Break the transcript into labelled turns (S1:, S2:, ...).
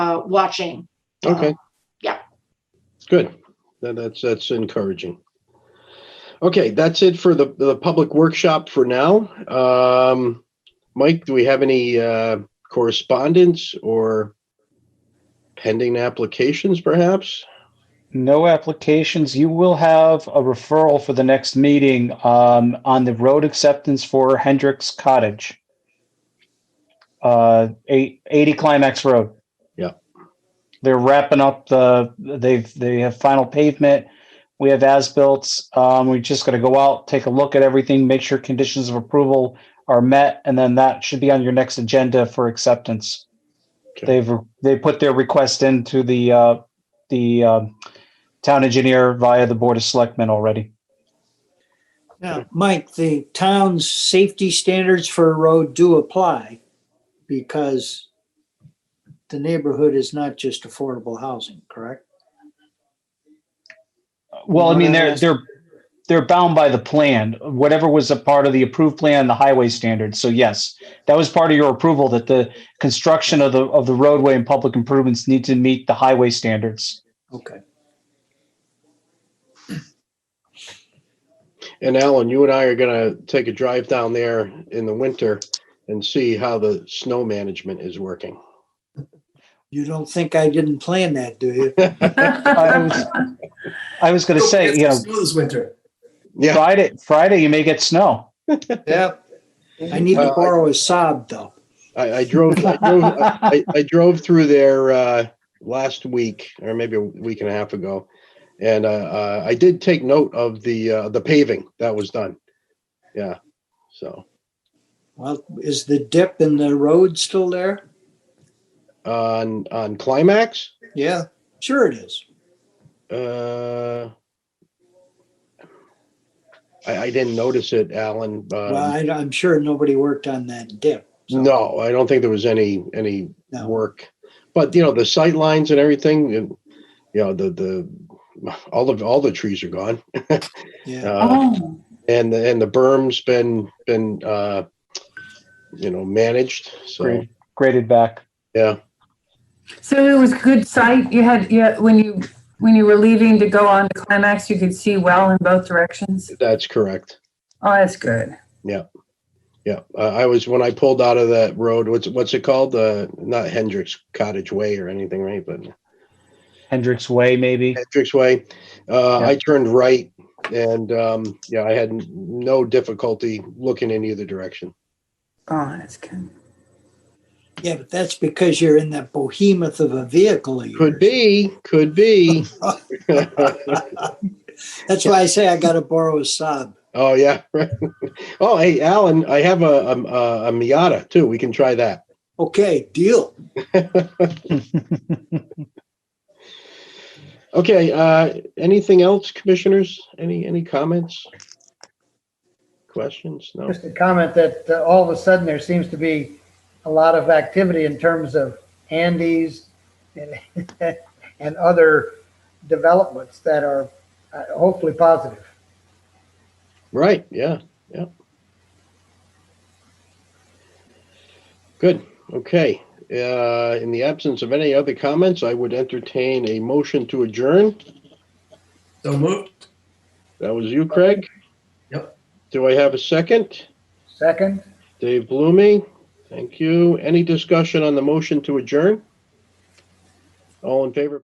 S1: uh, watching.
S2: Okay.
S1: yeah.
S2: Good. That- That's, that's encouraging. Okay, that's it for the, the public workshop for now. Um, Mike, do we have any, uh, correspondence or pending applications perhaps?
S3: No applications. You will have a referral for the next meeting um, on the road acceptance for Hendricks Cottage. Uh, eight, 80 Climax Road.
S2: Yeah.
S3: They're wrapping up the, they've, they have final pavement. We have as-built. Um, we just got to go out, take a look at everything, make sure conditions of approval are met, and then that should be on your next agenda for acceptance.
S2: Okay.
S3: They've, they put their request into the, uh, the, um, town engineer via the Board of Selectmen already.
S4: Now, Mike, the town's safety standards for a road do apply because the neighborhood is not just affordable housing, correct?
S3: Well, I mean, they're,
S4: Yes.
S3: they're, they're bound by the plan, whatever was a part of the approved plan, the highway standards. So yes, that was part of your approval that the construction of the, of the roadway and public improvements need to meet the highway standards.
S4: Okay.
S2: And Alan, you and I are gonna take a drive down there in the winter and see how the snow management is working.
S4: You don't think I didn't plan that, do you?
S3: I was, I was going to say, you know,
S5: This winter.
S2: Yeah,
S3: Friday, Friday, you may get snow.
S4: Yeah. I need to borrow a sob though.
S2: I, I drove, I drove, I, I drove through there uh, last week or maybe a week and a half ago, and uh, uh, I did take note of the uh, the paving that was done. Yeah, so
S4: Well, is the dip in the road still there?
S2: on on climax,
S4: Yeah. Sure it is.
S2: uh, I, I didn't notice it, Alan.
S4: Well,
S2: Um,
S4: I, am sure nobody worked on that dip.
S2: no, I don't think there was any any
S4: No.
S2: work, but you know the sight lines and everything, and you know the the all of all the trees are gone.
S4: Yeah.
S2: Uh,
S6: Oh,
S2: and the, and the berm's been been uh you know managed so
S3: Great. Graded back.
S6: so it was good sight. You had, yeah, when you, when you were leaving to go on to climax, you could see well in both directions.
S2: that's correct
S6: Oh, that's good.
S2: yeah uh, i was when i pulled out of that road what's what's it called uh not hendricks cottage way or anything right but
S3: Hendricks Way, maybe.
S2: hendricks way uh
S3: Yeah.
S2: i turned right and um yeah i had no difficulty looking in either direction
S6: Oh, that's good.
S4: Yeah, but that's because you're in that behemoth of a vehicle. of
S2: could
S4: yours.
S2: be could be
S4: That's why I say I gotta borrow a sob.
S2: oh yeah oh hey alan i have a, a a miata too we can try that
S4: Okay, deal.
S2: Okay, uh, anything else, commissioners? Any, any comments? Questions? No?
S7: Just a comment that uh, all of a sudden there seems to be a lot of activity in terms of Andes and, and other developments that are uh, hopefully positive.
S2: Right, yeah, yeah. Good, okay. Uh, in the absence of any other comments, I would entertain a motion to adjourn.
S5: So moved.
S2: That was you, Craig?
S5: Yep.
S2: Do I have a second?
S7: Second,
S2: Dave Blumey, thank you. Any discussion on the motion to adjourn? All in favor?